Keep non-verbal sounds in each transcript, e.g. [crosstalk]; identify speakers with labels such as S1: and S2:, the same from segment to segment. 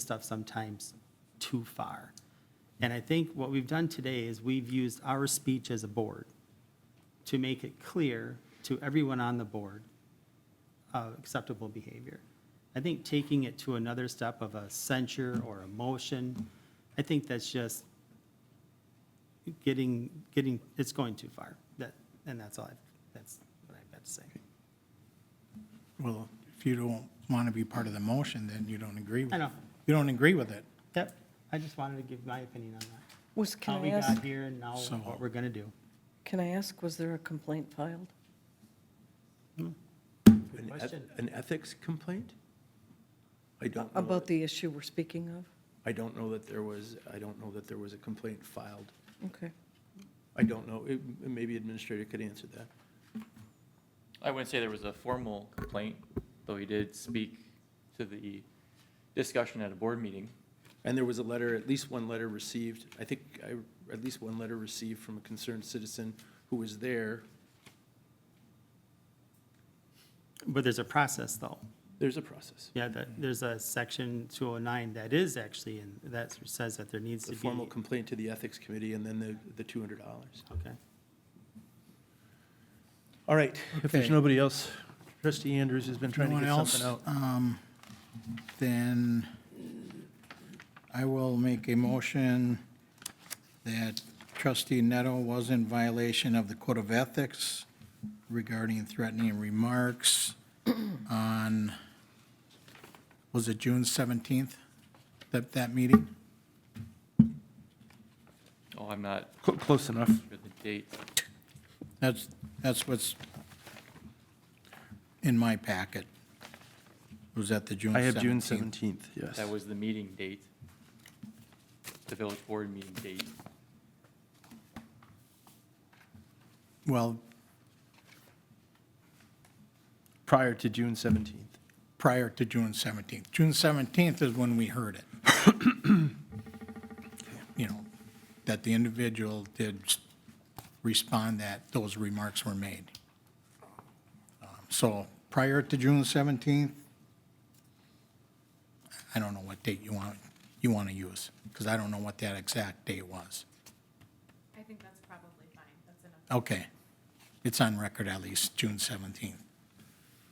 S1: stuff sometimes too far. And I think what we've done today is we've used our speech as a board to make it clear to everyone on the board uh, acceptable behavior. I think taking it to another step of a censure or a motion, I think that's just getting, getting, it's going too far. That, and that's all, I've that's what I've got to say.
S2: Well, if you don't want to be part of the motion, then you don't agree with it.
S1: I know.
S2: You don't agree with it.
S1: Yep, I just wanted to give my opinion on that.
S3: Was,
S1: How
S3: can I
S1: we got
S3: ask,
S1: here and now
S2: So-
S1: what we're going to do.
S3: can I ask, was there a complaint filed?
S4: An eth-
S1: question.
S4: An ethics complaint? I don't
S1: Oh,
S4: know.
S1: uh,
S3: About
S4: that-
S3: the issue we're speaking of?
S4: I don't know that there was, I don't know that there was a complaint filed.
S3: Okay.
S4: I don't know. It- Maybe administrator could answer that.
S5: I wouldn't say there was a formal complaint, though he did speak to the discussion at a board meeting.
S4: And there was a letter, at least one letter received, I think, I- at least one letter received from a concerned citizen who was there.
S1: But there's a process, though.
S4: There's a process.
S1: Yeah, that, there's a section 209 that is actually, and that says that there needs to
S4: The
S1: be.
S4: formal complaint to the ethics committee and then the, the two hundred dollars.
S1: Okay.
S4: All right, if there's
S2: Okay.
S4: nobody else, trustee Andrews has been trying
S2: No
S4: to
S2: one
S4: get
S2: else,
S4: something out.
S2: um, then I will make a motion that trustee Neto was in violation of the Code of Ethics regarding threatening remarks on, was it June 17th, that, that meeting?
S5: Oh, I'm not
S4: Cl- Close enough.
S5: sure the date.
S2: That's, that's what's in my packet. Was that the June 17th?
S4: I have June seventeenth, yes.
S5: That was the meeting date, the village board meeting date.
S2: Well,
S4: prior to June seventeenth.
S2: prior to June 17th. June 17th is when we heard it. [coughs] You know, that the individual did respond that those remarks were made. Um, So prior to June 17th, I don't know what date you want, you want to use, because I don't know what that exact date was.
S6: I think that's probably fine. That's enough.
S2: Okay. It's on record at least, June 17th,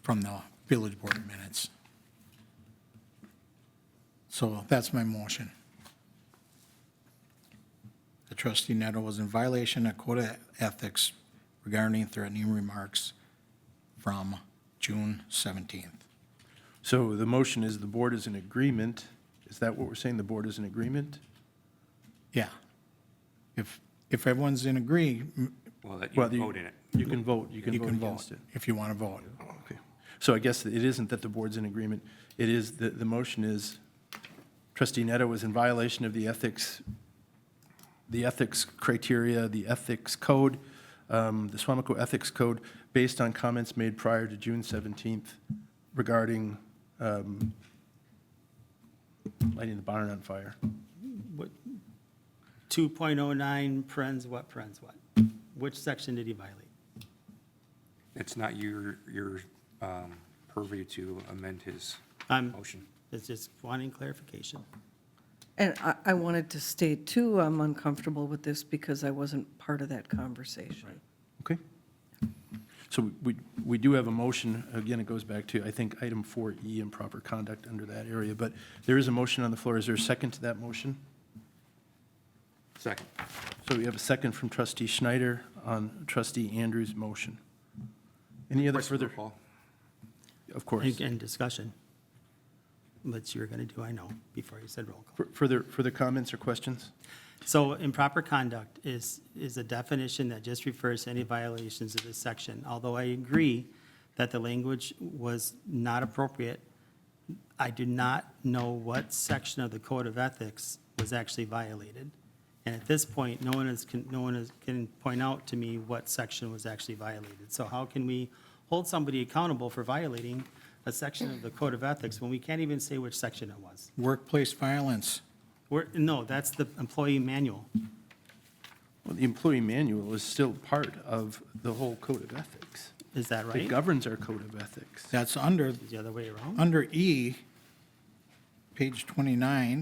S2: from the village board minutes. So that's my motion. The trustee Neto was in violation of code of ethics regarding threatening remarks from June 17th.
S4: So the motion is the board is in agreement. Is that what we're saying? The board is in agreement?
S2: Yeah. If, if everyone's in agree, m-
S7: Well, that you
S4: Well,
S7: can vote in it.
S4: You can vote, you
S2: you
S4: can vote
S2: can
S4: against
S2: vote,
S4: it.
S2: if you want to vote.
S4: Okay. So I guess it isn't that the board's in agreement. It is, the, the motion is trustee Neto was in violation of the ethics, the ethics criteria, the ethics code, um, the Swamaco Ethics Code, based on comments made prior to June 17th regarding um, lighting the barn on fire.
S1: What, 2.09, parens oh what, parens what? Which section did he violate?
S7: It's not your, your um, purview to amend his
S1: I'm-
S4: Oh,
S7: motion.
S1: Um, It's just wanting clarification.
S3: And I, I wanted to state too, I'm uncomfortable with this because I wasn't part of that conversation.
S4: Okay? So we, we do have a motion, again, it goes back to, I think, item 4E, improper conduct under that area, but there is a motion on the floor. Is there a second to that motion?
S7: Second.
S4: So we have a second from trustee Schneider on trustee Andrews' motion. Any other
S7: Question for
S4: further?
S7: Paul.
S4: Of course.
S1: And and discussion. What you were going to do, I know, before you said roll call.
S4: Fur- Further, further comments or questions?
S1: So improper conduct is, is a definition that just refers to any violations of this section. Although I agree that the language was not appropriate, I do not know what section of the Code of Ethics was actually violated. And at this point, no one is, can- no one is, can point out to me what section was actually violated. So how can we hold somebody accountable for violating a section of the Code of Ethics when we can't even say which section it was?
S2: Workplace violence,
S1: We're, no, that's the employee manual.
S4: Well, the employee manual is still part of the whole code of ethics.
S1: Is that right?
S4: It governs our code of ethics.
S2: that's under
S1: the other way around?
S2: Under E, page 29,